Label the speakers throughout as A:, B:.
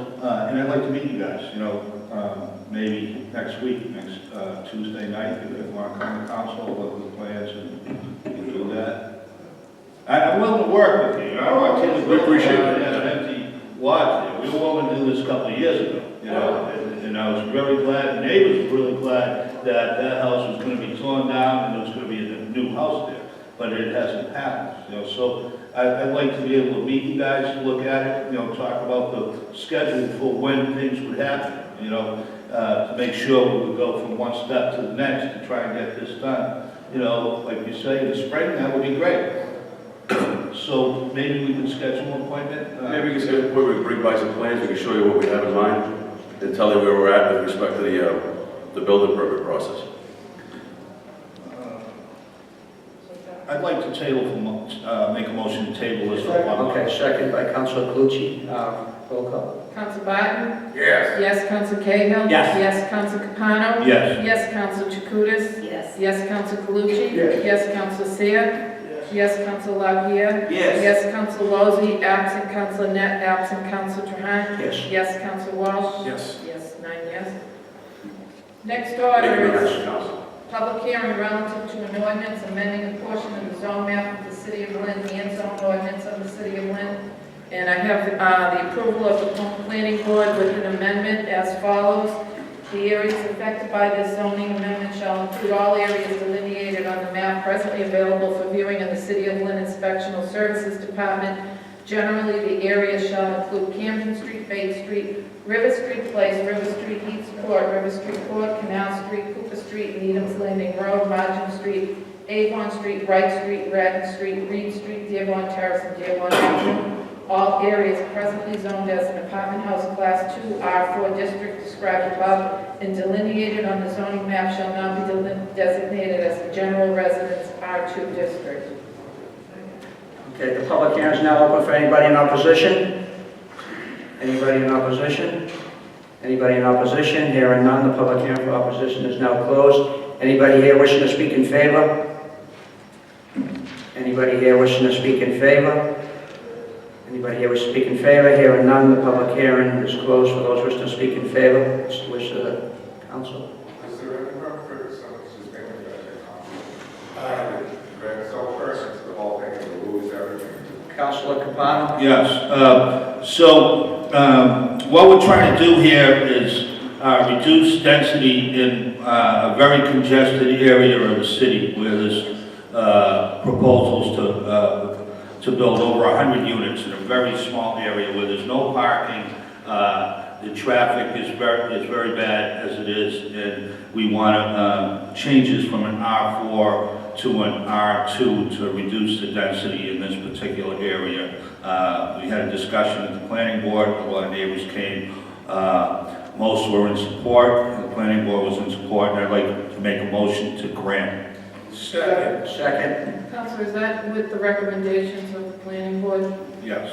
A: Uh, and I'd like to meet you guys, you know, um, maybe next week, next, uh, Tuesday night, if you want to come to council, what the plans and, and do that. I, I'm willing to work with you, I don't want to.
B: We appreciate it.
A: Had an empty lot there, we were willing to do this a couple of years ago, you know, and, and I was really glad, the neighbors were really glad that that house was gonna be torn down and there was gonna be a new house there, but it hasn't happened, you know, so I- I'd like to be able to meet you guys, look at it, you know, talk about the schedule for when things would happen, you know, uh, to make sure we would go from one step to the next to try and get this done. You know, like you say, in the spring, that would be great. So maybe we can schedule an appointment? uh,
B: Maybe we can schedule a point where we bring by some plans, we can show you what we have in mind, and tell you where we're at with respect to the, uh, the building permit process.
A: I'd like to table, for mo- uh, make a motion to table this for one month.
C: Okay, second by Councilor Calucci. Um, Roll call.
D: Counsel Barton?
B: Yes.
D: Yes, Counsel Cahill?
C: Yes.
D: Yes, Counsel Capano?
A: Yes.
D: Yes, Counsel Chakutis?
E: Yes.
D: Yes, Counsel Calucci?
C: Yes.
D: Yes, Counsel Seer? Yes, Counsel Lapierre?
C: Yes.
D: Yes, Counsel Lozey, absent Counsel Net, absent Counsel Trahan?
C: Yes.
D: Yes, Counsel Walsh?
B: Yes.
D: Yes, nine yes. Next
B: Thank you
D: order
B: very
D: is
B: much, Council.
D: Public hearing relative to an ordinance amending a portion of the zone map of the city of Lynn and zone ordinance of the city of Lynn. And I have uh, the approval of the planning board with an amendment as follows. The areas affected by this zoning amendment shall include all areas delineated on the map presently available for viewing in the city of Lynn Inspectional Services Department. Generally, the area shall include Camden Street, Bay Street, River Street Place, River Street East Court, River Street Court, Canal Street, Cooper Street, Needham's Landing Road, Margin Street, Avon Street, Wright Street, Radon Street, Reed Street, Dearborn Terrace, and Dearborn Avenue. All areas presently zoned as an apartment house class two R four district described above and delineated on the zoning map shall now be delin- designated as a general residence R two district.
C: Okay, the public hearing is now open for anybody in opposition? Anybody in opposition? Anybody in opposition? Hearing none, the public hearing for opposition is now closed. Anybody here wishing to speak in favor? Anybody here wishing to speak in favor? Anybody here wishing to speak in favor? Hearing none, the public hearing is closed for those wishing to speak in favor. It's the wish of the council.
F: Is there any room for someone who's been in that copy? Greg, so first, the whole thing, the rules, everything.
C: Councilor Capano?
A: Yes, uh, so, um, what we're trying to do here is, uh, reduce density in, uh, a very congested area of the city where there's, uh, proposals to, uh, to build over hundred units in a very small area where there's no parking, uh, the traffic is very, is very bad as it is, and we want to, um, changes from an R four to an R two to reduce the density in this particular area. Uh, We had a discussion at the planning board, a lot of neighbors came, Uh, most were in support, the planning board was in support, and I'd like to make a motion to grant.
C: Second. Second.
D: Counselor, is that with the recommendations of the planning board?
A: Yes.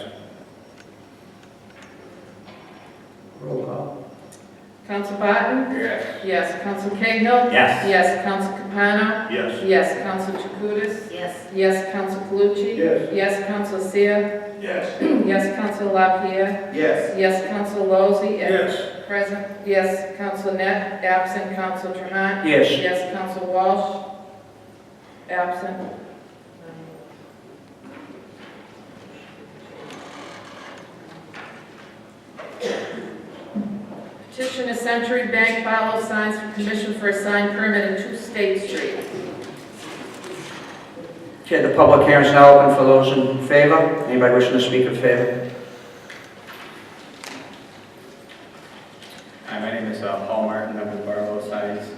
C: Roll call.
D: Counsel Barton?
F: Yes.
D: Yes, Counsel Cahill?
A: Yes.
D: Yes, Counsel Capano?
A: Yes.
D: Yes, Counsel Chakutis?
E: Yes.
D: Yes, Counsel Calucci?
C: Yes.
D: Yes, Counsel Seer?
F: Yes.
D: Yes, Counsel LaPierre?
C: Yes.
D: Yes, Counsel Lozey?
A: Yes.
D: Present. Yes, Counsel Net? Absent, Counsel Trahan?
C: Yes.
D: Yes, Counsel Walsh? Absent. Petition to Century Bank follow signs for commission for a sign permit in Two State Street.
C: Okay, the public hearing is now open for those in favor. Anybody wishing to speak in favor?
G: Hi, my name is uh, Paul Martin, I'm with Barlow Signs.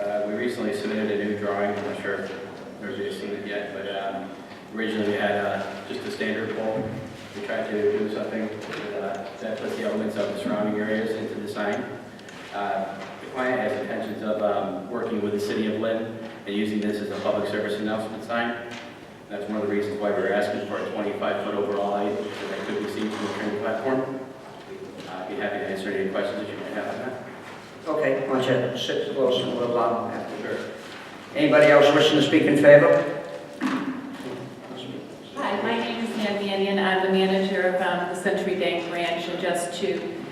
G: Uh, We recently submitted a new drawing, I'm not sure if everybody's seen it yet, but um, originally we had uh, just a standard pole. We tried to do something that, uh, that puts the elements of the surrounding areas into the sign. Uh, The client has intentions of um, working with the city of Lynn and using this as a public service announcement sign. That's one of the reasons why we're asking for a 25-foot overall height that could be seen from the train platform. Uh, I'd be happy to answer any questions that you might have on that.
C: Okay, why don't you sit close and we'll allow them after.
G: Sure.
C: Anybody else wishing to speak in favor?
H: Hi, my name is Nan Mannion. I'm the manager of um, the Century Bank Branch. And just to